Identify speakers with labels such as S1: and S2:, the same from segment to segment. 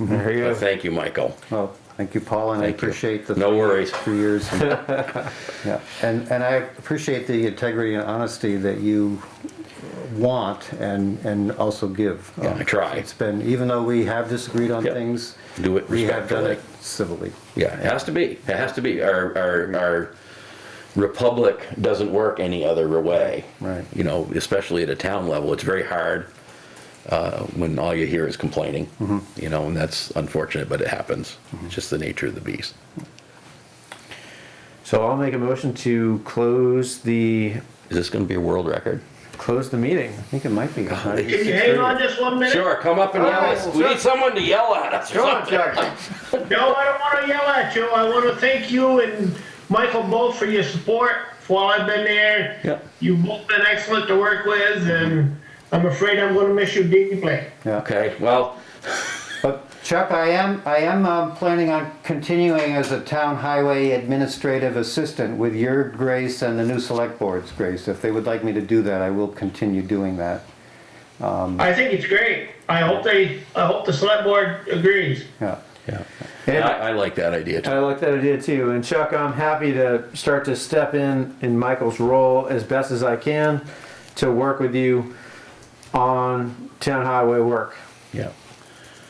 S1: There you
S2: But
S1: go.
S2: thank you, Michael.
S3: Mm-hmm. Well, thank you, Paul, and I
S2: Thank you.
S3: appreciate the.
S2: No worries.
S3: Two years. and- Yeah, and, and I appreciate the integrity and honesty that you want and, and also give.
S2: Yeah, I try.
S3: It's been, even though we have disagreed on
S2: Yep.
S3: things.
S2: Do it
S3: We have done
S2: respectfully.
S3: it civilly.
S2: Yeah, it has to be. It has to be. Our our our republic doesn't work any other way.
S3: Right.
S2: You know, especially at a town level, it's very hard uh, when all you hear is complaining.
S3: Mm-hmm.
S2: You know, and that's unfortunate, but it happens. It's just the nature of the beast.
S1: So I'll make a motion to close the,
S2: Is this going to be a world record?
S1: close the meeting.
S3: I think it might be. it's not even
S4: Can you hang on just one minute?
S2: Sure, come up and yell at us. We need someone to yell at us. or something.
S4: No, I don't wanna yell at you. I wanna thank you and Michael both for your support while I've been there.
S2: Yeah.
S4: You've both been excellent to work with
S2: Mm-hmm.
S4: and I'm afraid I'm gonna miss you deeply.
S2: Okay. Well,
S3: But Chuck, I am, I am um, planning on continuing as a town highway administrative assistant with your grace and the new select board's grace. If they would like me to do that, I will continue doing that.
S2: Mm-hmm.
S4: I think it's great. I hope they, I hope the select board agrees.
S3: Yeah.
S2: yeah.
S1: And-
S2: I, I like that idea too.
S1: I like that idea too. And Chuck, I'm happy to start to step in in Michael's role as best as I can to work with you on town highway work.
S2: Yeah.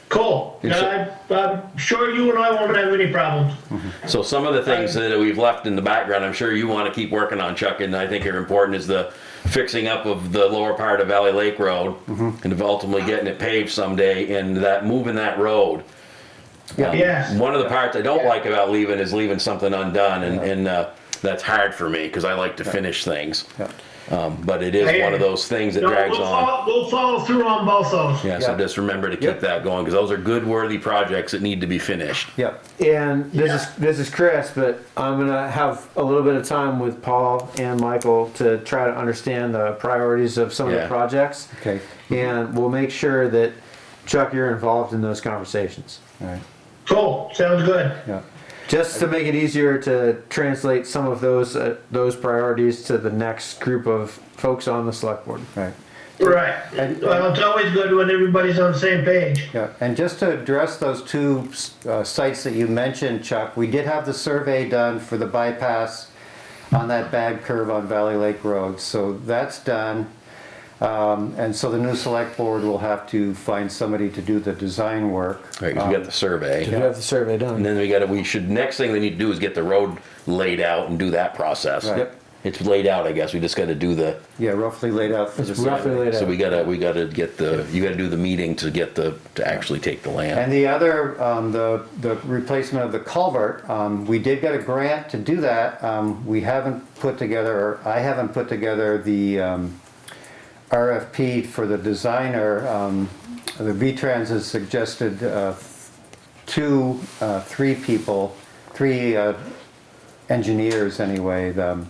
S4: Cool.
S2: Yes,
S4: I, I'm sure you and I won't have any problems.
S2: Mm-hmm. So some of the things that we've left in the background, I'm sure you want to keep working on, Chuck, and I think are important is the fixing up of the lower part of Valley Lake Road
S3: Mm-hmm.
S2: and ultimately getting it paved someday and that, moving that road. Um,
S4: Yes.
S2: One of the parts I don't like about leaving is leaving something undone and, and, uh, that's hard for me because I like to finish things.
S3: Yeah.
S2: Um, but it is one of those things that
S4: No,
S2: drags
S4: we'll
S2: on.
S4: follow- We'll follow through on both those.
S2: Yeah, so
S3: Yeah.
S2: just remember to
S1: Yep.
S2: keep that going because those are good worthy projects that need to be finished.
S3: Yep.
S1: And this is this is Chris, but I'm gonna have a little bit of time with Paul and Michael to try to understand the priorities of some of the
S2: Yeah.
S1: projects.
S3: Okay.
S1: And we'll make sure that Chuck, you're involved in those conversations.
S3: All right.
S4: Cool, sounds good.
S3: Yeah.
S1: Just to make it easier to translate some of those, uh, those priorities to the next group of folks on the select board.
S3: Right.
S4: Right.
S3: And-
S4: Well, it's always good when everybody's on the same page.
S3: Yeah. And just to address those two uh, sites that you mentioned, Chuck, we did have the survey done for the bypass on that bad curve on Valley Lake Road. So that's done. Um, and so the new select board will have to find somebody to do the design work.
S2: Right, 'cause we got the survey.
S1: You have the survey
S2: And
S1: done.
S2: then we gotta, we should, next thing we need to do is get the road laid out and do that process.
S3: Right. Yep.
S2: It's laid out, I guess, we just gotta do the,
S3: Yeah, roughly laid out for the.
S1: Roughly laid
S2: so we
S1: out.
S2: gotta, we gotta get the, you gotta do the meeting to get the, to actually take the land.
S3: And the other, um, the, the replacement of the culvert, um, we did get a grant to do that. Um, we haven't put together, or I haven't put together the, um, RFP for the designer. Um, the V-Trans has suggested, uh, two, uh, three people, three, uh, engineers anyway, the, um,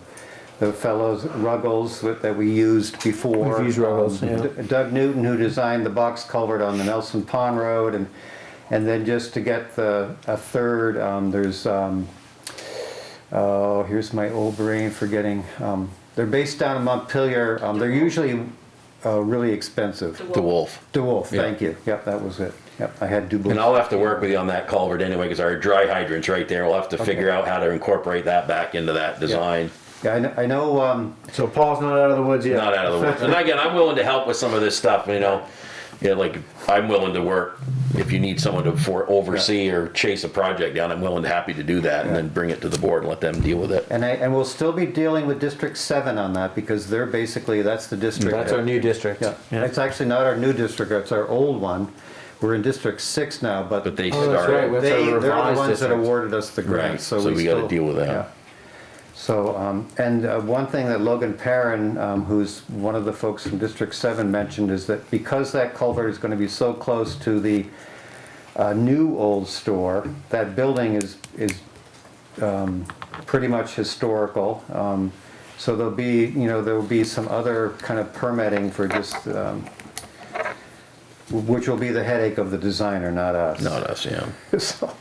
S3: the fellows, Ruggles, that that we used before.
S1: We've used Ruggles,
S3: um,
S1: yeah.
S3: D- Doug Newton, who designed the box culvert on the Nelson Pond Road, and, and then just to get the, a third, um, there's, um, oh, here's my old brain forgetting, um, they're based down in Montpelier, um, they're usually, uh, really expensive.
S2: The wolf.
S3: DeWolf,
S2: Yeah.
S3: thank you, yep, that was it, yep, I had
S2: And
S3: DuBois.
S2: I'll have to work with you on that culvert anyway, cause our dry hydrant's right there, we'll have to figure out how to incorporate that back into that design.
S3: Yeah, I know, I know, um,
S1: So Paul's not out of the woods yet.
S2: Not out of the woods. And again, I'm willing to help with some of this stuff, you know, yeah, like, I'm willing to work, if you need someone to for, oversee or chase a project down, I'm willing, to happy to do that, and then bring it to the board and let them deal with it.
S3: And I, and we'll still be dealing with District Seven on that, because they're basically, that's the district.
S1: That's our new district.
S3: Yeah, it's actually not our new district, it's our old one. We're in District Six now, but
S2: But they
S1: Oh, that's right.
S2: started,
S1: That's our
S3: they, they're the
S1: revised
S3: ones that
S1: district.
S3: awarded us the grant,
S2: Right,
S3: so we
S2: so we gotta
S3: still-
S2: deal with that.
S3: yeah. So, um, and uh, one thing that Logan Perrin, um, who's one of the folks from District Seven mentioned is that because that culvert is gonna be so close to the uh, new old store, that building is, is um, pretty much historical. Um, So there'll be, you know, there'll be some other kind of permitting for just, um, which will be the headache of the designer, not us.
S2: not us, yeah.
S3: So,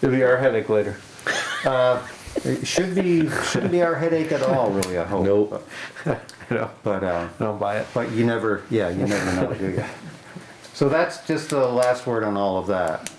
S1: It'll be our headache later.
S3: It should be, shouldn't be our headache at all, really, I hope.
S2: Nope.
S1: You know,
S3: But, uh,
S1: don't buy it.
S3: but you never, yeah, you never know, do you? So that's just the last word on all of that.